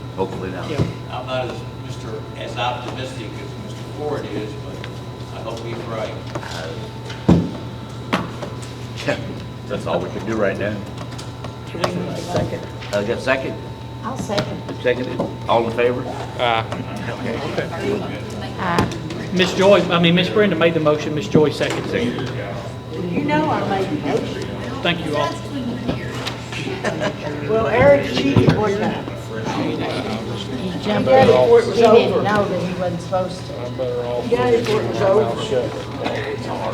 hopefully not. Yeah, I'm not as, Mr., as optimistic as Mr. Ford is, but I hope he's right. That's all we can do right now. Second. I got second, I'll second. seconded, all in favor? Miss Joy, I mean, Miss Brenda made the motion, Miss Joy seconded it. Seconded. You know I made the motion. Thank you all. Well, Eric cheated one time. He jumped in before it was over. He didn't know that he wasn't supposed to. Better off. Yeah, it was over.